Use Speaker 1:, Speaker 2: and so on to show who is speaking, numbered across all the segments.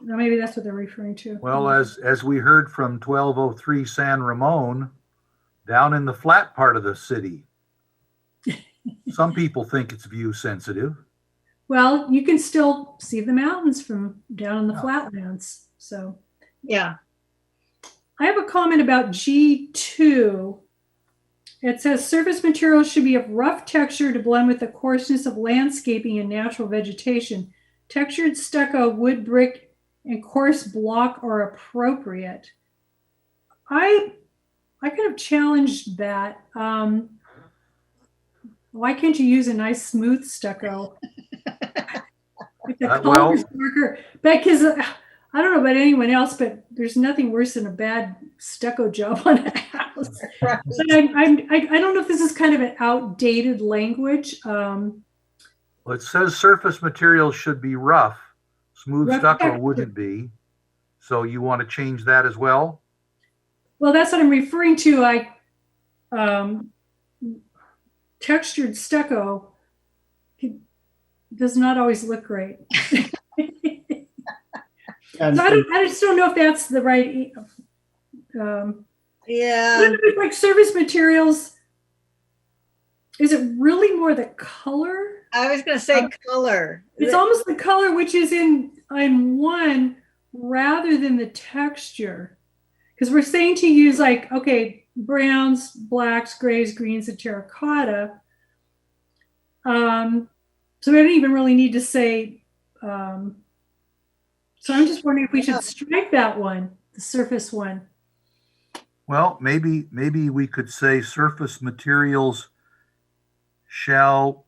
Speaker 1: Now, maybe that's what they're referring to.
Speaker 2: Well, as, as we heard from twelve oh three San Ramon, down in the flat part of the city. Some people think it's view sensitive.
Speaker 1: Well, you can still see the mountains from down in the flatlands, so.
Speaker 3: Yeah,
Speaker 1: I have a comment about G2. It says surface materials should be of rough texture to blend with the coarseness of landscaping and natural vegetation. Textured stucco, wood brick, and coarse block are appropriate. I I kind of challenged that. Um, why can't you use a nice smooth stucco? If the
Speaker 2: Uh,
Speaker 1: color's darker, because uh, I don't know about anyone else, but there's nothing worse than a bad stucco job on a house.
Speaker 3: right.
Speaker 1: But I'm, I'm, I, I don't know if this is kind of an outdated language. Um,
Speaker 2: Well, it says surface materials should be rough. Smooth
Speaker 1: Rough
Speaker 2: stucco
Speaker 1: texture.
Speaker 2: wouldn't be. So you want to change that as well?
Speaker 1: well, that's what I'm referring to. I um, textured stucco can- does not always look great.
Speaker 4: And
Speaker 1: So I, don't, I just don't know if that's the right. e, Um, I
Speaker 3: yeah,
Speaker 1: don't know if, like surface materials, is it really more the color?
Speaker 3: I was gonna say
Speaker 1: Um,
Speaker 3: color.
Speaker 1: It's almost the color which is in in one rather than the texture. Because we're saying to use like, okay, browns, blacks, grays, greens, and terracotta. Um, so we don't even really need to say um, so I'm just wondering if we
Speaker 3: Yeah.
Speaker 1: should strike that one, the surface one.
Speaker 2: Well, maybe, maybe we could say surface materials shall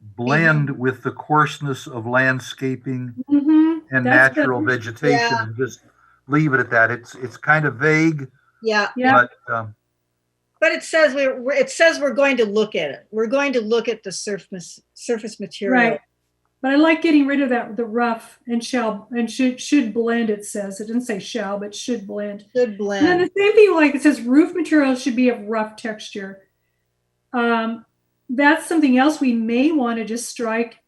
Speaker 2: blend with the coarseness of landscaping
Speaker 1: Mm-hmm.
Speaker 2: and
Speaker 1: That's
Speaker 2: natural vegetation
Speaker 3: Yeah.
Speaker 2: and just leave it at that. It's, it's kind of vague,
Speaker 3: Yeah,
Speaker 1: Yeah.
Speaker 2: but, um,
Speaker 3: but it says we're, we're- it says we're going to look at it. We're going to look at the surface, surface material.
Speaker 1: Right. But I like getting rid of that the rough and shall and should should blend, it says. It didn't say shall, but should blend.
Speaker 3: Good
Speaker 1: And then
Speaker 3: blend.
Speaker 1: the same thing, like it says roof materials should be of rough texture. Um, that's something else we may want to just strike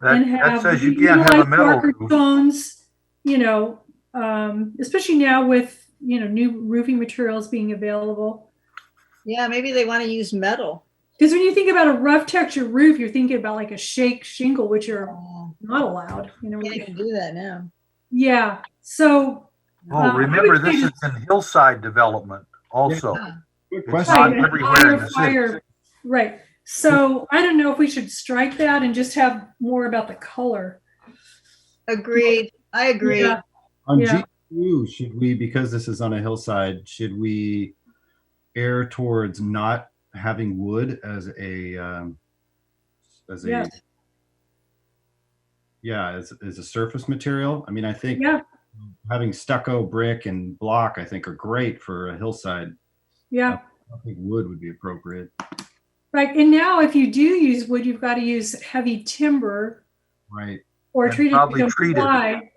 Speaker 2: that,
Speaker 1: and
Speaker 2: that
Speaker 1: have.
Speaker 2: says you can't have a
Speaker 1: utilize
Speaker 2: metal
Speaker 1: darker
Speaker 2: roof.
Speaker 1: Tones, you know, um, especially now with, you know, new roofing materials being available.
Speaker 3: Yeah, maybe they want to use metal.
Speaker 1: Because when you think about a rough texture roof, you're thinking about like a shake shingle, which are
Speaker 3: Oh,
Speaker 1: not allowed, you know.
Speaker 3: Can't even do that now.
Speaker 1: Yeah, so,
Speaker 2: Oh,
Speaker 1: Um, I
Speaker 2: remember,
Speaker 1: would say
Speaker 2: this is in hillside development also.
Speaker 3: Yeah.
Speaker 4: good
Speaker 2: It's
Speaker 4: question.
Speaker 2: not
Speaker 1: Right,
Speaker 2: everywhere in
Speaker 1: fire,
Speaker 2: the city.
Speaker 1: fire. right, so I don't know if we should strike that and just have more about the color.
Speaker 3: Agreed. I agree.
Speaker 1: Yeah.
Speaker 4: On
Speaker 1: Yeah.
Speaker 4: G2, should we, because this is on a hillside, should we err towards not having wood as a, um, as a,
Speaker 1: Yes.
Speaker 4: yeah, as, as a surface material? I mean, I think
Speaker 1: Yeah,
Speaker 4: having stucco, brick and block, I think are great for a hillside.
Speaker 1: yeah,
Speaker 4: I think wood would be appropriate.
Speaker 1: right, and now if you do use wood, you've got to use heavy timber
Speaker 4: Right.
Speaker 1: or
Speaker 2: And
Speaker 1: treated.
Speaker 2: probably
Speaker 1: to
Speaker 2: treated.
Speaker 1: comply.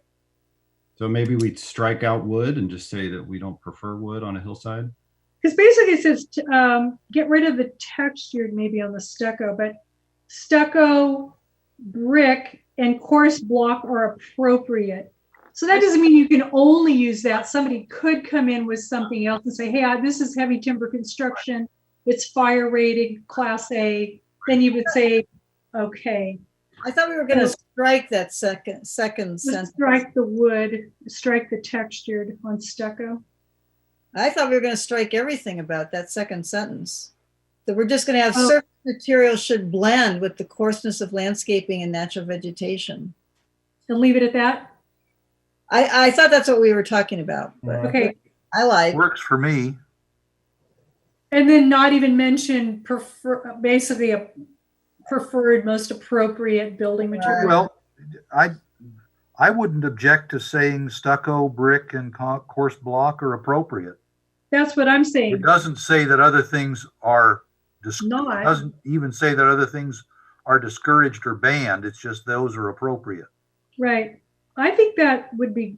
Speaker 4: So maybe we'd strike out wood and just say that we don't prefer wood on a hillside.
Speaker 1: Because basically it says, t- um, get rid of the textured maybe on the stucco, but stucco, brick, and coarse block are appropriate. So that doesn't mean you can only use that. Somebody could come in with something else and say, hey, I- this is heavy timber construction. It's fire rated, class A. Then you would say, okay,
Speaker 3: I thought we were going to strike that second, second
Speaker 1: let's
Speaker 3: sentence.
Speaker 1: strike the wood, strike the textured on stucco.
Speaker 3: I thought we were going to strike everything about that second sentence. That we're just going to have
Speaker 1: Oh.
Speaker 3: surface material should blend with the coarseness of landscaping and natural vegetation.
Speaker 1: And leave it at that?
Speaker 3: I, I thought that's what we were talking about, but
Speaker 1: Okay.
Speaker 3: I like,
Speaker 2: Works for me.
Speaker 1: And then not even mention prefer, basically a preferred, most appropriate building material.
Speaker 2: Well, I, I wouldn't object to saying stucco, brick, and co- coarse block are appropriate.
Speaker 1: That's what I'm
Speaker 2: It
Speaker 1: saying.
Speaker 2: doesn't say that other things are, dis-
Speaker 1: Not.
Speaker 2: doesn't even say that other things are discouraged or banned. It's just those are appropriate.
Speaker 1: Right. I think that would be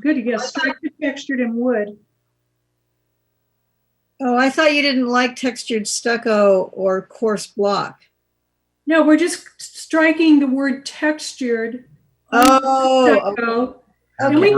Speaker 1: good to get structured, textured and wood.
Speaker 3: oh, I thought you didn't like textured stucco or coarse block.
Speaker 1: No, we're just striking the word textured.
Speaker 3: Oh,
Speaker 1: stucco,
Speaker 2: Have
Speaker 1: And we
Speaker 2: a